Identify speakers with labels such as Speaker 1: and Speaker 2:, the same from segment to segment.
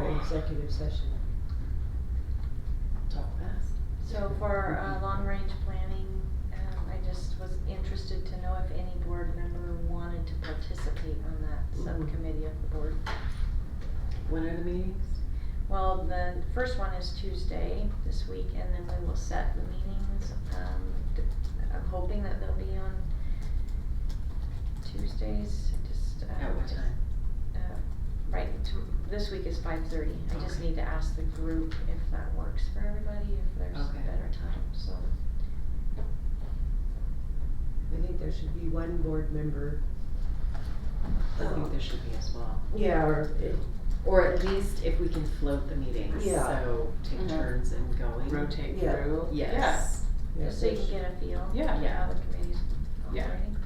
Speaker 1: executive session. Talk fast.
Speaker 2: So for uh, long-range planning, um, I just was interested to know if any board member wanted to participate on that
Speaker 1: Mhm.
Speaker 2: subcommittee of the board.
Speaker 1: When are the meetings?
Speaker 2: Well, the first one is Tuesday this week, and then we will set the meetings. Um, d- I'm hoping that they'll be on Tuesdays, just. uh,
Speaker 1: At what time?
Speaker 2: uh, Right, t- this week is five thirty. I just
Speaker 1: Okay.
Speaker 2: need to ask the group if that works for everybody, if there's a
Speaker 1: Okay.
Speaker 2: better time, so.
Speaker 3: I think there should be one board member.
Speaker 1: I think there should be as well.
Speaker 3: Yeah, or,
Speaker 1: Or at least if we can float the meetings,
Speaker 3: Yeah.
Speaker 1: so take
Speaker 4: Mhm.
Speaker 1: turns and going.
Speaker 4: rotate
Speaker 3: Yeah.
Speaker 4: through.
Speaker 1: Yes.
Speaker 2: Just so you can get a feel.
Speaker 4: Yeah.
Speaker 2: for How the committee's
Speaker 4: Yeah.
Speaker 2: operating.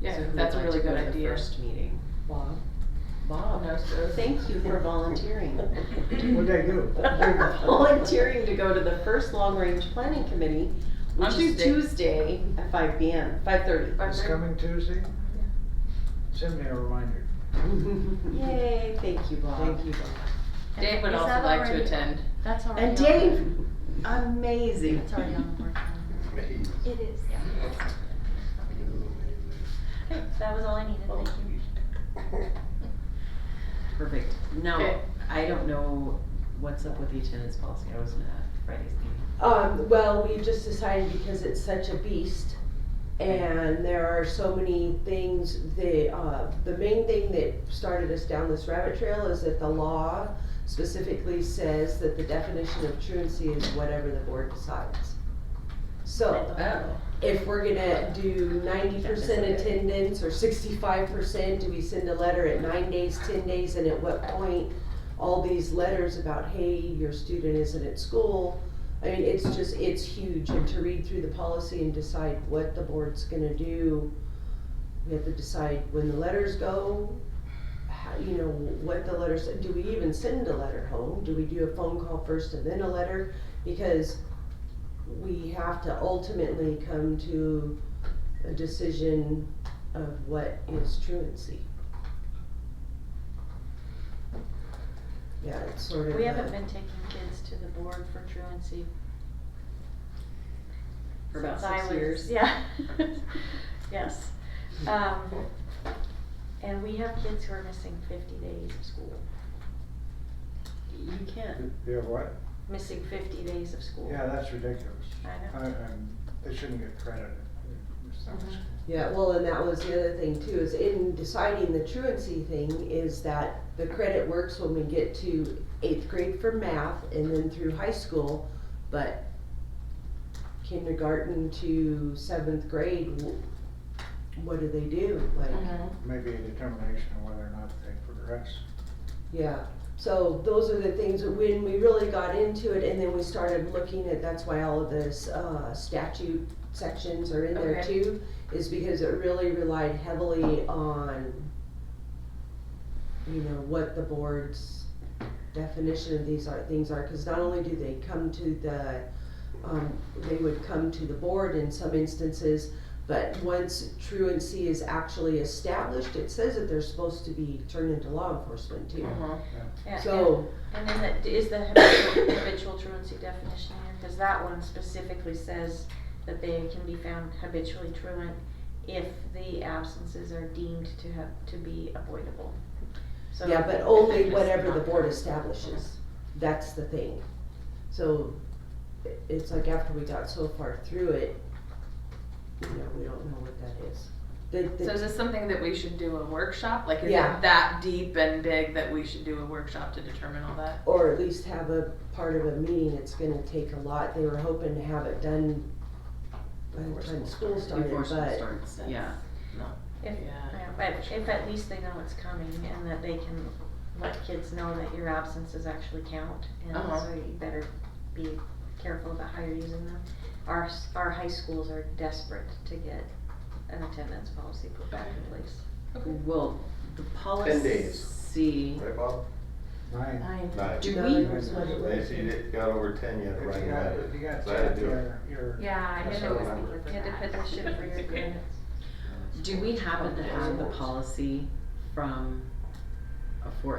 Speaker 4: Yeah,
Speaker 1: So who
Speaker 4: that's a
Speaker 1: would like
Speaker 4: really
Speaker 1: to go
Speaker 4: good
Speaker 1: to the
Speaker 4: idea.
Speaker 1: First meeting.
Speaker 3: Bob.
Speaker 1: Bob,
Speaker 4: No, so-
Speaker 1: thank you for volunteering.
Speaker 5: What'd I do?
Speaker 1: You're volunteering to go to the first long range planning committee, which
Speaker 4: On
Speaker 1: is
Speaker 4: Tuesday.
Speaker 1: Tuesday at five P M, five thirty.
Speaker 5: It's coming Tuesday? Send me a reminder.
Speaker 1: Yay, thank you, Bob.
Speaker 3: Thank you, Bob.
Speaker 4: Dave would
Speaker 2: Is
Speaker 4: also
Speaker 2: that
Speaker 4: like to
Speaker 2: already-
Speaker 4: attend.
Speaker 2: That's already.
Speaker 1: And
Speaker 2: on
Speaker 1: Dave,
Speaker 2: the-
Speaker 1: amazing.
Speaker 2: It's already on the work calendar. It is, yeah. Okay, that was all I needed, thank you.
Speaker 1: Perfect. Now,
Speaker 4: Okay.
Speaker 1: I don't know what's up with the attendance policy. I wasn't at Friday's meeting.
Speaker 3: Um, well, we just decided because it's such a beast and there are so many things, the, uh, the main thing that started us down this rabbit trail is that the law specifically says that the definition of truancy is whatever the board decides. So
Speaker 1: Oh,
Speaker 3: if we're gonna do ninety percent attendance or sixty-five percent, do we send a letter at nine days, ten days, and at what point? All these letters about, hey, your student isn't at school, I mean, it's just, it's huge, and to read through the policy and decide what the board's gonna do. We have to decide when the letters go, how, you know, what the letters, do we even send a letter home? Do we do a phone call first and then a letter? Because we have to ultimately come to a decision of what is truancy. Yeah, it's sort of.
Speaker 2: We
Speaker 3: a-
Speaker 2: haven't been taking kids to the board for truancy.
Speaker 1: For about
Speaker 2: since I
Speaker 1: six
Speaker 2: was-
Speaker 1: years.
Speaker 2: Yeah. Yes. Um, and we have kids who are missing fifty days of school,
Speaker 1: You can.
Speaker 5: Yeah, what?
Speaker 2: missing fifty days of school.
Speaker 5: Yeah, that's ridiculous.
Speaker 2: I know.
Speaker 5: I, I'm, they shouldn't get credit. It's not-
Speaker 2: Mhm.
Speaker 3: Yeah, well, and that was the other thing too, is in deciding the truancy thing is that the credit works when we get to eighth grade for math and then through high school, but kindergarten to seventh grade, wh- what do they do? Like,
Speaker 4: Mm-hmm.
Speaker 5: Maybe a determination of whether or not they progress.
Speaker 3: yeah, so those are the things, that when we really got into it and then we started looking at, that's why all of this, uh, statute sections are in there
Speaker 2: Okay.
Speaker 3: too, is because it really relied heavily on, you know, what the board's definition of these are, things are, cause not only do they come to the, um, they would come to the board in some instances, but once truancy is actually established, it says that they're supposed to be turned into law enforcement too.
Speaker 1: Uh-huh.
Speaker 2: Yeah, and-
Speaker 3: So,
Speaker 2: And then that, is the habitual, habitual truancy definition here, cause that one specifically says that they can be found habitually truant if the absences are deemed to have, to be avoidable. So-
Speaker 3: yeah, but only whatever the board establishes, that's the thing. So, i- it's like after we got so far through it, you know, we don't know what that is. The- the-
Speaker 4: So is this something that we should do a workshop? Like, is
Speaker 3: Yeah.
Speaker 4: it that deep and big that we should do a workshop to determine all that?
Speaker 3: or at least have a part of a meeting, it's gonna take a lot, they were hoping to have it done by the time school started,
Speaker 1: Before school
Speaker 3: but,
Speaker 1: starts, yeah.
Speaker 2: If,
Speaker 4: Yeah.
Speaker 2: yeah, but if at least they know it's coming and that they can let kids know that your absences actually count, and
Speaker 4: Uh-huh.
Speaker 2: so you better be careful about how you're using them. Our, s- our high schools are desperate to get an attendance policy put back in place.
Speaker 1: Well, the policy.
Speaker 6: days. Right, Bob?
Speaker 5: Nine.
Speaker 6: Nine.
Speaker 1: Do
Speaker 3: Nine.
Speaker 1: we,
Speaker 3: That's what it
Speaker 6: They see it got over ten yet,
Speaker 5: If
Speaker 6: right?
Speaker 5: you got, if you got
Speaker 6: So I had to
Speaker 5: ten,
Speaker 6: do it.
Speaker 5: you're, you're.
Speaker 4: Yeah,
Speaker 6: I knew there was
Speaker 2: You had to put the shit for your agreements.
Speaker 1: do we happen to have the policy from, uh, for